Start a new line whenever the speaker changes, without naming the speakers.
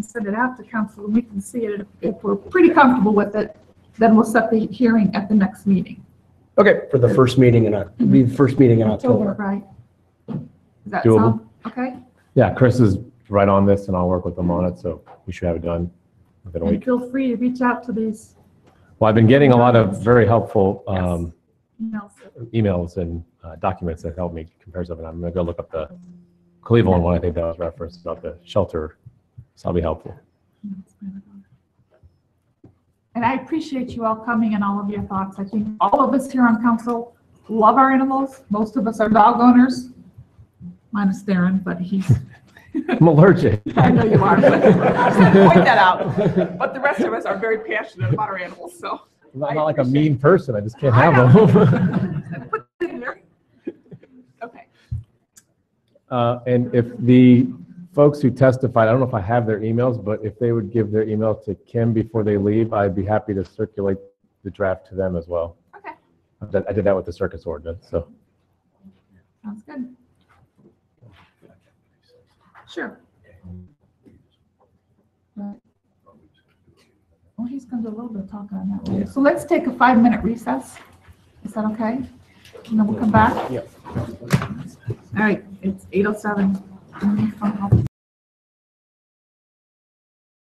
send it out to council, and we can see it, if we're pretty comfortable with it, then we'll set the hearing at the next meeting,
Okay,
for the first meeting in, Oc- the first meeting in
October,
October.
right? Does that
Doable.
sound, okay?
Yeah, Chris is right on this and I'll work with him on it, so we should have it done within a
And
week.
feel free to reach out to these,
Well, I've been getting a lot of very helpful um,
you know,
emails and uh, documents that help me compare stuff, and I'm gonna go look up the Cleveland one, I think that was referenced about the shelter, so that'll be helpful.
And I appreciate you all coming and all of your thoughts. I think all of us here on council love our animals. Most of us are dog owners, minus Darren, but he's,
I'm allergic.
I know you are.
I just had to point that out,
I'm
but the rest of us are very passionate about our animals, so.
not not like a mean person, I just can't have them.
Okay.
Uh, And if the folks who testified, I don't know if I have their emails, but if they would give their email to Kim before they leave, I'd be happy to circulate the draft to them as well.
Okay.
I did- I did that with the circus ordinance, so.
Sounds good. Sure. Right. Well, Oh, he's going to do a little bit of talking on that one. So let's take a five-minute recess. Is that okay? And then we'll come back?
Yep.
oh All right, it's 8:07.